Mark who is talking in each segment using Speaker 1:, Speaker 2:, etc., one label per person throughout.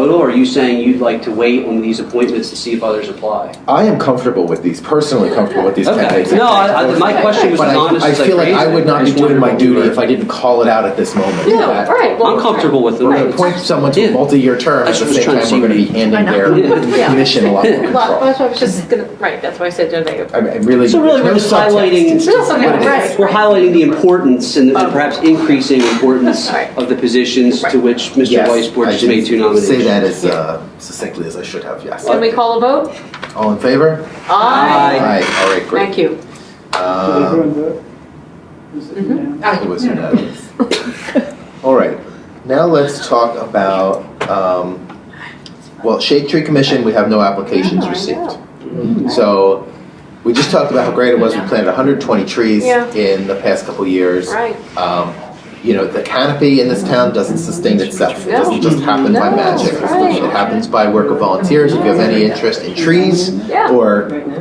Speaker 1: total, or are you saying you'd like to wait on these appointments to see if others apply?
Speaker 2: I am comfortable with these, personally comfortable with these
Speaker 1: Okay,
Speaker 2: candidates.
Speaker 1: no, I, I, my question was
Speaker 2: But
Speaker 1: as honest
Speaker 2: I, I
Speaker 1: as I
Speaker 2: feel like
Speaker 1: phrased
Speaker 2: I
Speaker 1: it.
Speaker 2: would not be
Speaker 1: just
Speaker 2: doing
Speaker 1: wondered
Speaker 2: my
Speaker 1: what we
Speaker 2: duty
Speaker 1: were-
Speaker 2: if I didn't call it out at this moment.
Speaker 3: No,
Speaker 2: that
Speaker 3: right. well,
Speaker 1: I'm comfortable with it.
Speaker 2: We're gonna appoint someone to
Speaker 1: Yeah.
Speaker 2: a multi-year term,
Speaker 1: I
Speaker 2: at the
Speaker 1: was
Speaker 2: same
Speaker 1: trying to
Speaker 2: time
Speaker 1: see
Speaker 2: we're gonna be
Speaker 1: what
Speaker 2: handing their
Speaker 3: Yeah.
Speaker 2: commission a lot more
Speaker 3: Well,
Speaker 2: control.
Speaker 3: that's what I was just gonna, right, that's why I said, don't they?
Speaker 2: I mean, I really.
Speaker 1: So really,
Speaker 2: there's
Speaker 1: we're
Speaker 2: no
Speaker 1: just
Speaker 2: subtext.
Speaker 1: highlighting-
Speaker 2: It's just
Speaker 3: We're just
Speaker 2: what it
Speaker 3: highlighting-
Speaker 2: is.
Speaker 1: We're highlighting the importance and and
Speaker 3: Of-
Speaker 1: perhaps increasing importance
Speaker 3: Right.
Speaker 1: of the positions to
Speaker 3: Right.
Speaker 1: which Mr.
Speaker 2: Yes,
Speaker 1: Weisbord
Speaker 2: I
Speaker 1: just
Speaker 2: did
Speaker 1: made two
Speaker 2: Say that
Speaker 1: nominations.
Speaker 2: as uh, succinctly as I should have, yes.
Speaker 3: Can we call a vote?
Speaker 2: All in favor?
Speaker 1: Aye.
Speaker 2: All right, great.
Speaker 3: Thank you.
Speaker 4: Did
Speaker 2: Um,
Speaker 4: everyone
Speaker 1: Uh,
Speaker 4: vote? Is it unanimous?
Speaker 2: It was unanimous. All right, now let's talk about, um, well, Shade Tree Commission, we have no applications
Speaker 3: Yeah, Oh, I
Speaker 2: received.
Speaker 3: know.
Speaker 2: So, we just talked about how great it was, we planted hundred twenty trees
Speaker 3: Yeah.
Speaker 2: in the past couple years.
Speaker 3: Right.
Speaker 2: Um, you know, the canopy in this town doesn't sustain itself, it doesn't
Speaker 3: No.
Speaker 2: just happen by
Speaker 3: No,
Speaker 2: magic.
Speaker 3: right.
Speaker 2: It happens by work of volunteers, if you have any interest in trees
Speaker 3: Yeah.
Speaker 2: or
Speaker 4: Right now?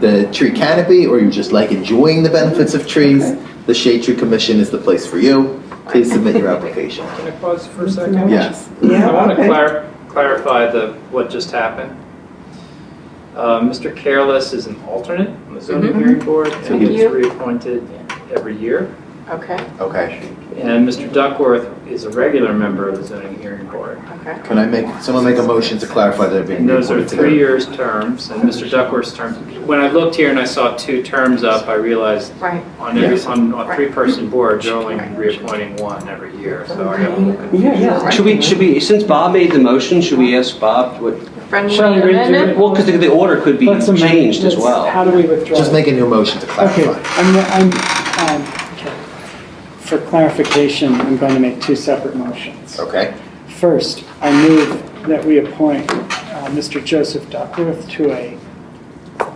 Speaker 2: the tree canopy or you just like enjoying the benefits of trees, the Shade Tree Commission is the place for you. Please submit your application.
Speaker 5: Can I pause for a second?
Speaker 2: Yes.
Speaker 4: Yeah,
Speaker 5: I want to
Speaker 4: okay.
Speaker 5: clar- clarify the, what just happened. Uh, Mr. Careless is an alternate on the zoning
Speaker 4: Mm-hmm.
Speaker 3: Mhm.
Speaker 5: hearing board,
Speaker 2: So
Speaker 5: and
Speaker 2: he-
Speaker 5: he's reappointed every year.
Speaker 3: Okay,
Speaker 2: Okay.
Speaker 5: And Mr. Duckworth is a regular member of the zoning hearing board.
Speaker 3: okay.
Speaker 2: Can I make, someone make a motion to clarify that they're being
Speaker 5: And those are
Speaker 2: reappointed
Speaker 5: three
Speaker 2: together?
Speaker 5: years terms, and Mr. Duckworth's term, when I looked here and I saw two terms up, I realized
Speaker 3: Right.
Speaker 5: on every, on a three-person board, you're only reappointing one every year, so I got a little confused.
Speaker 4: Yeah, yeah.
Speaker 1: Should we, should we, since Bob made the motion, should we ask Bob what?
Speaker 3: Friendly
Speaker 4: Shall we redo
Speaker 3: amendment?
Speaker 1: Well, because the order could be
Speaker 4: Let's amend-
Speaker 1: changed as
Speaker 4: let's-
Speaker 1: well.
Speaker 4: How do we withdraw?
Speaker 2: Just make a new motion to
Speaker 4: Okay,
Speaker 2: clarify.
Speaker 4: I'm, I'm, um, for clarification, I'm going to make two separate motions.
Speaker 2: Okay,
Speaker 4: First, I move that we appoint uh, Mr. Joseph Duckworth to a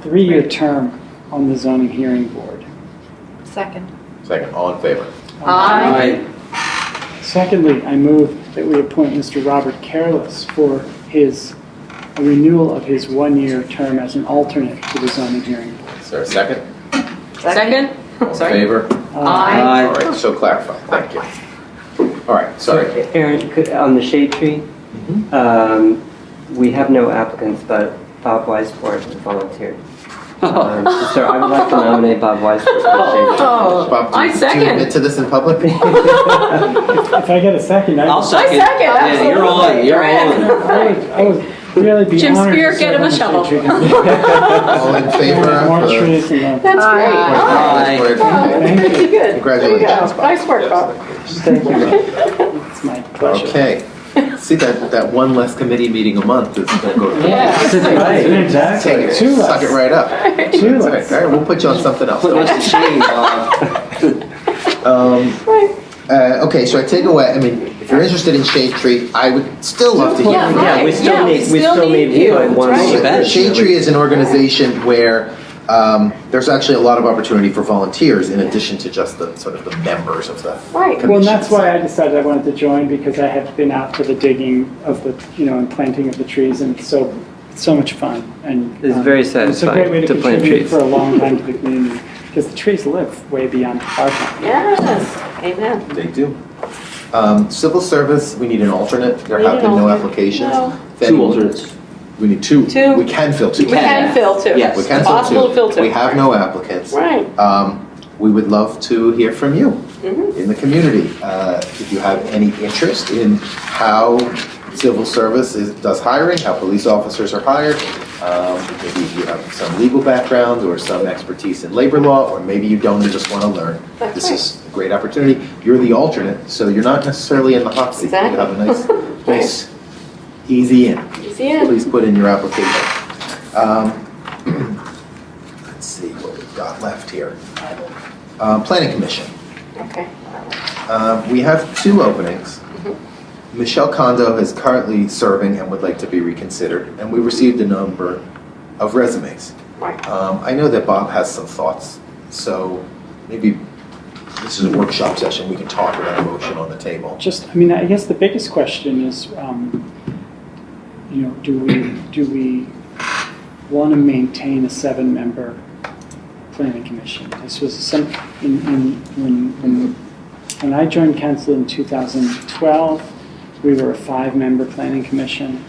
Speaker 4: three-year term on the zoning hearing board.
Speaker 3: Second.
Speaker 2: second, all in favor?
Speaker 3: Aye.
Speaker 4: Secondly, I move that we appoint Mr. Robert Careless for his, a renewal of his one-year term as an alternate to the zoning hearing board.
Speaker 2: Is there a second?
Speaker 3: Second?
Speaker 2: All in
Speaker 3: Sorry.
Speaker 2: favor?
Speaker 3: Aye.
Speaker 4: Uh,
Speaker 2: All
Speaker 1: Aye.
Speaker 2: right, so clarified, thank you. All right, sorry.
Speaker 6: Aaron, could, on the shade tree, um, we have no applicants, but Bob Weisford volunteered.
Speaker 1: Oh.
Speaker 6: Um, So I would like to nominate Bob Weisford for
Speaker 2: Bob,
Speaker 3: Oh,
Speaker 2: do you-
Speaker 3: I
Speaker 2: Do you admit
Speaker 3: second.
Speaker 2: to this in public?
Speaker 6: the shade tree.
Speaker 4: If I get a second, I
Speaker 1: I'll
Speaker 4: will,
Speaker 1: second.
Speaker 3: second,
Speaker 1: Yeah, you're on,
Speaker 3: absolutely.
Speaker 1: you're
Speaker 3: Right.
Speaker 1: on.
Speaker 4: I would- I would really be
Speaker 3: Jim
Speaker 4: honored to
Speaker 3: Spear, get
Speaker 4: serve
Speaker 3: him a
Speaker 4: on the
Speaker 3: shovel.
Speaker 4: Shade Tree Commission.
Speaker 2: All in favor? of uh,
Speaker 4: More
Speaker 2: the-
Speaker 4: trees than that.
Speaker 3: That's
Speaker 7: Aye.
Speaker 3: great.
Speaker 1: Aye.
Speaker 3: Oh,
Speaker 2: Aye.
Speaker 4: Thank you.
Speaker 3: Pretty good.
Speaker 2: Congratulations,
Speaker 3: There you
Speaker 2: Bob.
Speaker 3: go. Nice work, Bob.
Speaker 6: Thank you.
Speaker 4: It's my pleasure.
Speaker 2: Okay. See that that one less committee meeting a month is gonna go.
Speaker 3: Yeah.
Speaker 2: Take it,
Speaker 4: Two less.
Speaker 2: suck it right up.
Speaker 4: Two
Speaker 2: That's all
Speaker 4: less.
Speaker 2: right. All right, we'll put you on something else.
Speaker 1: Put us to shame, Bob.
Speaker 2: Um,
Speaker 3: Right.
Speaker 2: uh, okay, so I take away. I mean, if you're interested in shade tree, I would still love to hear.
Speaker 3: Yeah,
Speaker 6: Yeah, we
Speaker 3: right. Yeah,
Speaker 6: still need, we still need
Speaker 3: you.
Speaker 6: one.
Speaker 3: That's right.
Speaker 6: more.
Speaker 1: Right.
Speaker 2: Shade Tree is an organization where um, there's actually a lot of opportunity for volunteers in addition to just the sort of the members of the
Speaker 3: Right.
Speaker 2: commission.
Speaker 4: Well, and that's why I decided I wanted to join, because I have been out for the digging of the, you know, and planting of the trees, and it's so, it's so much fun, and.
Speaker 6: It's
Speaker 4: um,
Speaker 6: very
Speaker 4: It's a great
Speaker 6: satisfying
Speaker 4: way to
Speaker 6: to plant
Speaker 4: contribute
Speaker 6: trees.
Speaker 4: for a long time to the community, because the trees live way beyond our time.
Speaker 3: Yes, amen.
Speaker 2: They do. Um, civil service, we need an alternate. There
Speaker 3: We
Speaker 2: have
Speaker 3: need
Speaker 2: been
Speaker 3: an
Speaker 2: no
Speaker 3: alternate.
Speaker 2: applications.
Speaker 3: No.
Speaker 2: If
Speaker 1: Two
Speaker 2: anyone-
Speaker 1: alternates.
Speaker 2: We need two.
Speaker 3: Two.
Speaker 2: We can fill two.
Speaker 3: We can fill too.
Speaker 1: Yes.
Speaker 2: We can
Speaker 3: It's
Speaker 2: fill
Speaker 3: possible
Speaker 2: two.
Speaker 3: to fill two.
Speaker 2: We have no applicants.
Speaker 3: Right.
Speaker 2: Um, we would love to hear from you
Speaker 3: Mhm.
Speaker 2: in the community. Uh, if you have any interest in how civil service is, does hiring, how police officers are hired, um, maybe you have some legal background or some expertise in labor law, or maybe you don't and just want to learn.
Speaker 3: That's
Speaker 2: this
Speaker 3: right.
Speaker 2: is a great opportunity. You're the alternate, so you're not necessarily in the hot seat. You have a nice, nice, easy in
Speaker 3: Easy in.
Speaker 2: please put in your application. Um, Let's see what we've got left here. Uh, Planning Commission,
Speaker 3: Okay.
Speaker 2: Uh, we have two openings. Michelle Condo is currently serving and would like to be reconsidered, and we received a number of resumes.
Speaker 3: Right.
Speaker 2: Um, I know that Bob has some thoughts, so maybe this is a workshop session, we can talk about a motion on the table.
Speaker 4: Just, I mean, I guess the biggest question is, um, you know, do we, do we want to maintain a seven-member planning commission? This was some, in, in, when, when, when I joined council in 2012, we were a five-member planning commission.